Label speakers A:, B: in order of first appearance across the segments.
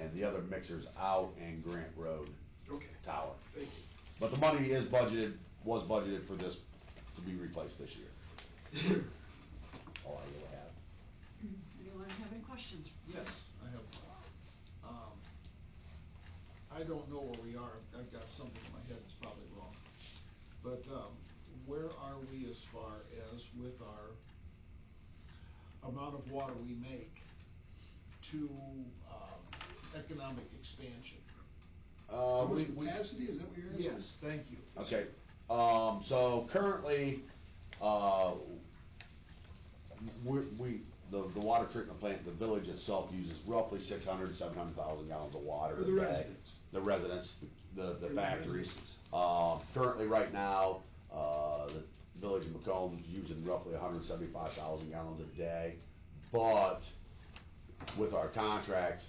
A: and the other mixer's out in Grant Road
B: Okay,
A: Tower.
B: thank you.
A: But the money is budgeted, was budgeted for this to be replaced this year. All I really have.
C: Anyone have any questions?
B: Yes, I have. one. Um, I don't know where we are. I've got something in my head that's probably wrong. But um, where are we as far as with our amount of water we make to um, economic expansion?
A: Uh,
D: How
A: we-
D: much
A: we-
D: capacity, is that what you're asking?
B: Yes, thank you.
A: Okay, um, so currently, uh, we, we, the, the water treatment plant, the village itself uses roughly six hundred, seven hundred thousand gallons of water.
D: For the
A: a day.
D: residents.
A: The residents, the,
D: For
A: the
D: the
A: factories.
D: businesses.
A: Uh, currently, right now, uh, the village of Macomb's using roughly hundred seventy-five thousand gallons a day. But with our contract,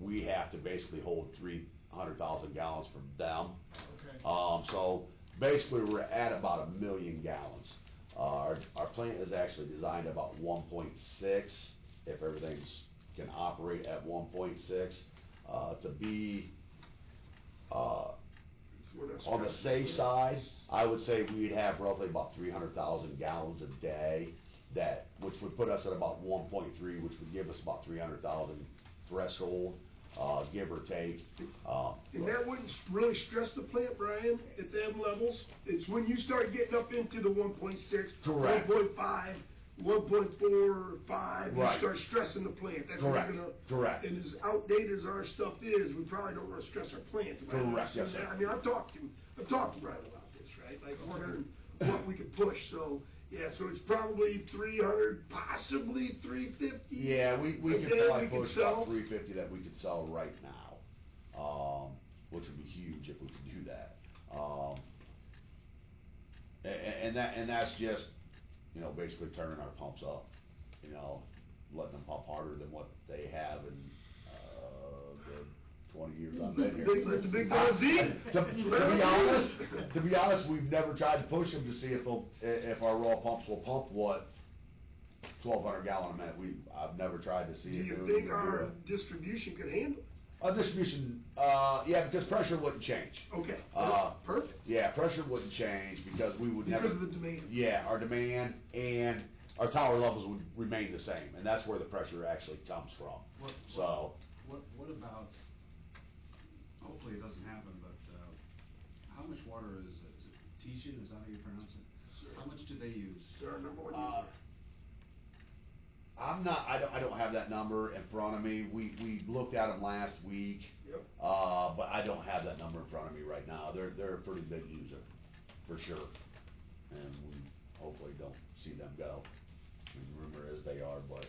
A: we have to basically hold three hundred thousand gallons from them.
B: Okay.
A: Um, so basically, we're at about a million gallons. Uh, our, our plant is actually designed about one point six, if everything's, can operate at one point six. Uh, to be, uh,
D: We're not
A: on the
D: stretching
A: safe
D: it.
A: side, I would say we'd have roughly about three hundred thousand gallons a day that, which would put us at about one point three, which would give us about three hundred thousand threshold, uh, give or take. Uh,
D: And that wouldn't s- really stress the plant, Brian, at them levels. It's when you start getting up into the 1.6,
A: Correct.
D: 1.5, 1.45,
A: Right.
D: you start stressing the plant. That's what's
A: Correct,
D: gonna-
A: correct.
D: And as outdated as our stuff is, we probably don't wanna stress our plants. about it.
A: Correct, yes, sir.
D: I mean, I've talked to, I've talked to Brian about this, right? Like wondering what we could push, so, yeah, so it's probably 300, possibly 350.
A: Yeah, we, we
D: a
A: could
D: day
A: probably
D: we could
A: push about
D: sell.
A: three fifty that we could sell right now, um, which would be huge if we could do that. Um, a- a- and that, and that's just, you know, basically turning our pumps up, you know, letting them pump harder than what they have in, uh, the twenty years I've been here.
D: Let the big- let the big guys eat.
A: To, to be honest, to be honest, we've never tried to push them to see if they'll, i- if our raw pumps will pump what twelve hundred gallon a minute. We, I've never tried to
D: Do
A: see. if
D: you
A: they
D: think
A: would
D: our
A: do
D: distribution could handle it?
A: it. Our distribution, uh, yeah, because pressure wouldn't change.
D: Okay,
A: Uh,
D: perfect.
A: Yeah, pressure wouldn't change because we would never.
D: Because of the demand.
A: Yeah, our demand and our tower levels would remain the same, and that's where the pressure actually comes from.
E: What-
A: So,
E: What, what about, hopefully it doesn't happen, but uh, how much water is, is it Tishan, is that how you pronounce it? How much do they use?
D: It's our number one
A: uh,
D: user.
A: I'm not, I don't, I don't have that number in front of me. We, we looked at them last week.
D: Yep.
A: Uh, but I don't have that number in front of me right now. They're, they're a pretty big user, for sure. And we hopefully don't see them go. I mean, rumor is they are, but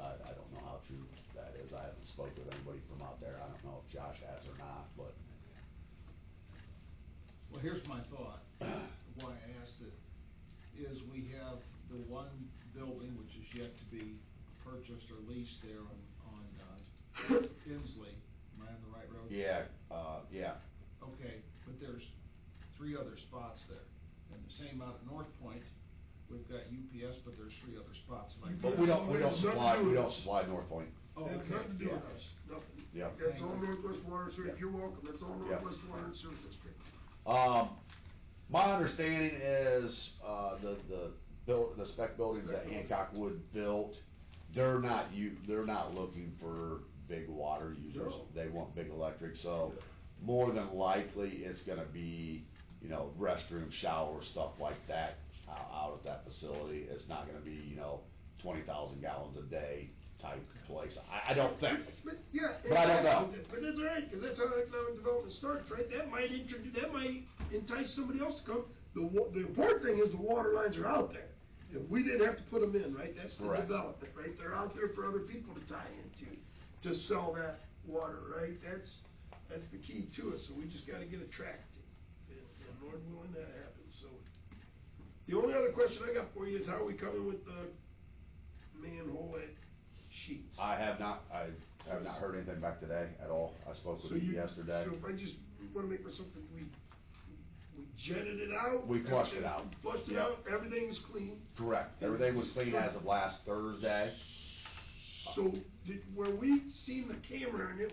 A: I, I don't know how true that is. I haven't spoke with anybody from out there. I don't know if Josh has or not, but,
B: Well, here's my thought, why I asked it, is we have the one building which is yet to be purchased or leased there on, on uh, Inslee. Am I on the right road?
A: yeah, uh, yeah.
B: Okay, but there's three other spots there. And the same out at North Point, we've got UPS, but there's three other spots. Am I
A: But we don't, we don't supply, we don't supply North Point.
B: Oh,
D: That has nothing to do with
B: okay,
D: us, nothing.
A: Yeah.
D: That's all Northwest Water and
A: Yeah.
D: Sewer, you're welcome, that's all
A: Yeah.
D: Northwest Water and Sewer District.
A: Um, my understanding is, uh, the, the buil- the spec buildings that Hancock Wood built, they're not you, they're not looking for big water users.
D: No.
A: They want big electric, so
D: Yeah.
A: more than likely, it's gonna be, you know, restroom, shower, stuff like that ou- out at that facility. It's not gonna be, you know, twenty thousand gallons a day type place. I, I don't think.
D: But, yeah.
A: But I don't know.
D: But that's all right, because that's how economic development starts, right? That might introduce, that might entice somebody else to come. The, wa- the important thing is the water lines are out there. If we didn't have to put them in, right, that's the
A: Correct.
D: development, right? They're out there for other people to tie into, to sell that water, right? That's, that's the key to it, so we just gotta get attracted. And and Lord willing, that happens, so. The only other question I got for you is how are we coming with the manhole at Sheets?
A: I have not, I have not heard anything back today at all. I spoke with
D: So
A: him
D: you-
A: yesterday.
D: So if I just want to make myself, think we, we jetted it out?
A: We flushed it out.
D: everything- Flushed it
A: Yeah.
D: out, everything's clean.
A: Correct. Everything was clean as of last Thursday.
D: So did, where we seen the camera and it